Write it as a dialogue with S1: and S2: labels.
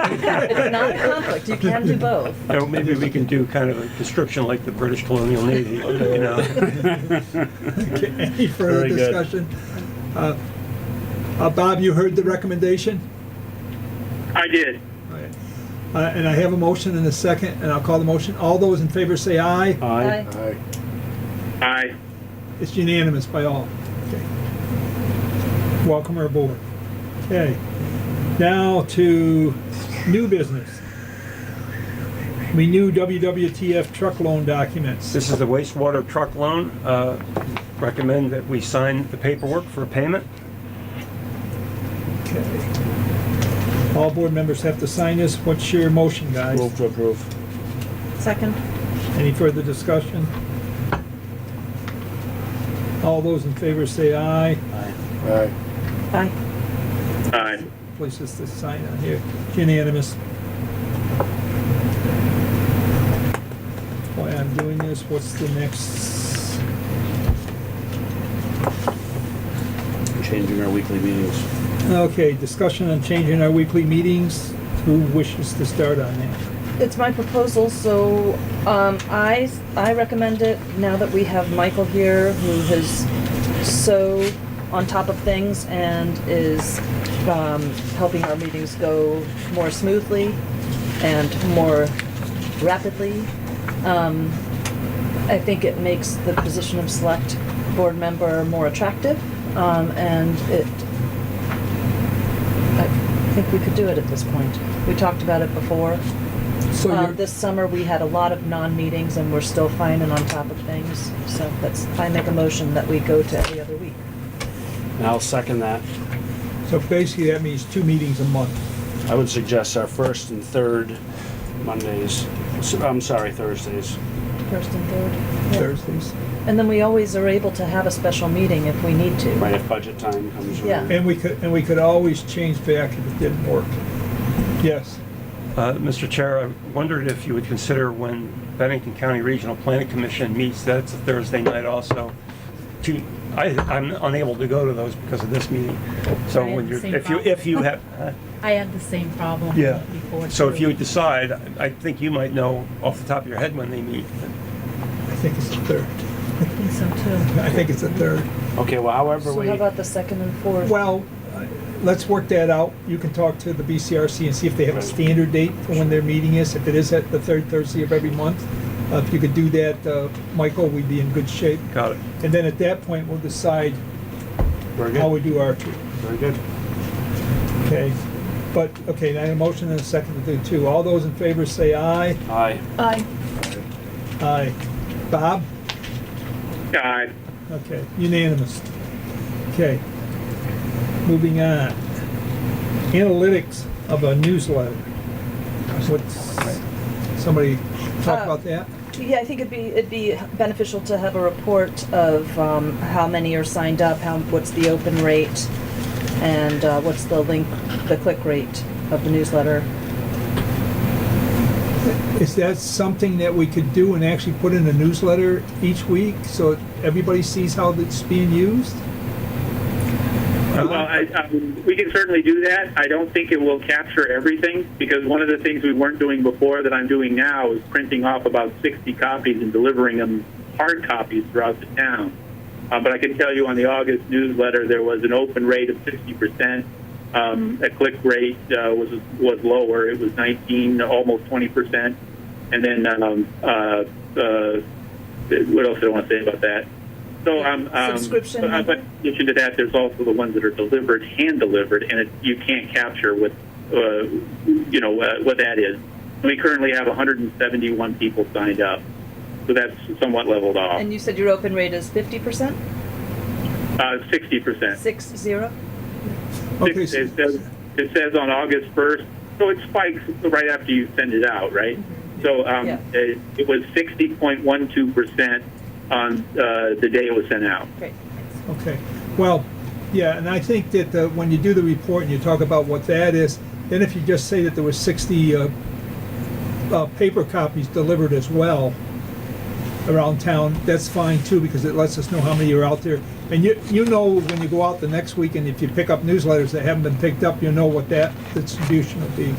S1: It's not a conflict, you can do both.
S2: You know, maybe we can do kind of a construction like the British colonial navy, you know?
S3: Okay, Any further
S4: Very good.
S3: discussion? Uh, uh, Bob, you heard the recommendation?
S5: I did.
S3: All right. Uh, And I have a motion and a second, and I'll call the motion. All those in favor say aye.
S4: Aye.
S1: Aye.
S5: I
S3: It's unanimous by all. Okay. Welcome aboard. Okay, now to new business. Renew WWTF truck loan documents.
S2: This is the wastewater truck loan. Uh, Recommend that we sign the paperwork for payment.
S3: Okay. All board members have to sign this. What's your motion, guys?
S4: Move to approve.
S1: Second?
S3: Any further discussion? All those in favor say aye.
S6: Aye.
S1: Aye.
S5: I
S3: Place this to sign on here. Unanimous. Why I'm doing this, what's the next?
S4: Changing our weekly meetings.
S3: Okay, discussion on changing our weekly meetings. Who wishes to start on that?
S1: It's my proposal, so, um, I, I recommend it now that we have Michael here who is so on top of things and is, um, helping our meetings go more smoothly and more rapidly. Um, I think it makes the position of select board member more attractive, um, and it, I think we could do it at this point. We talked about it before.
S3: So
S1: Uh,
S3: you're-
S1: This summer, we had a lot of non-meetings, and we're still fine and on top of things, so that's, I make a motion that we go to every other week.
S4: And I'll second that.
S3: So basically, that means two meetings a month.
S4: I would suggest our first and third Mondays, S- I'm sorry, Thursdays.
S1: First and third. yeah.
S3: Thursdays.
S1: And then we always are able to have a special meeting if we need to.
S4: Right, if budget time comes around.
S1: Yeah.
S3: And we could, and we could always change back if it didn't work. Yes.
S2: Uh, Mr. Chair, I wondered if you would consider when Bennington County Regional Planning Commission meets, that's a Thursday night also, to, I, I'm unable to go to those because of this meeting. So
S7: Right,
S2: when you're,
S7: same
S2: if you, if you have, huh?
S7: I had the same problem
S2: yeah.
S7: before.
S2: So if
S7: too.
S2: you decide, I think you might know off the top of your head when they meet.
S3: I think it's the third.
S7: I think so too.
S3: I think it's the third.
S4: Okay, well, however
S1: So
S4: we,
S1: how about the second and fourth?
S3: Well, uh, let's work that out. You can talk to the BCRC and see if they have a
S4: Right.
S3: standard date for when their meeting is. If it is at the third Thursday of every month, uh, if you could do that, uh, Michael, we'd be in good shape.
S2: Got it.
S3: And then at that point, we'll decide
S4: very
S3: how we
S4: good,
S3: do our two,
S4: very good.
S3: okay? But, okay, now a motion and a second to do two. All those in favor say aye.
S4: Aye.
S1: Aye.
S3: Aye. Bob?
S5: I
S3: Okay, unanimous. Okay. Moving on. Analytics of a newsletter. What's, somebody talk
S1: Uh,
S3: about that?
S1: Yeah, I think it'd be, it'd be beneficial to have a report of um, how many are signed up, how, what's the open rate, and uh, what's the link, the click rate of the newsletter.
S3: Is that something that we could do and actually put in a newsletter each week so everybody sees how it's being used?
S5: Well, I, I, we can certainly do that. I don't think it will capture everything because one of the things we weren't doing before that I'm doing now is printing off about 60 copies and delivering them hard copies throughout the town. Uh, but I can tell you on the August newsletter, there was an open rate of 60%. Um, A click rate uh, was was lower. It was 19, almost 20%. And then um, uh, uh, what else did I want to say about that? So um, um,
S1: Subscription
S5: but-
S1: number?
S5: but in addition to that, there's also the ones that are delivered, hand delivered, and it, you can't capture what uh, you know uh, what that is. We currently have 171 people signed up, so that's somewhat leveled off.
S1: And you said your open rate is 50%?
S5: Uh, 60%.
S1: Six zero?
S3: Okay,
S5: It
S3: so-
S5: says, it says on August 1st, so it spikes right after you send it out, right? So um,
S1: Mm-hmm. Yeah.
S5: it, it was 60.12% on uh, the day it was sent out.
S1: Great.
S3: Okay, well, yeah, and I think that uh, when you do the report and you talk about what that is, then if you just say that there was 60 uh, uh, paper copies delivered as well, around town, that's fine too, because it lets us know how many are out there. And you, you know when you go out the next week and if you pick up newsletters that haven't been picked up, you know what that distribution will be.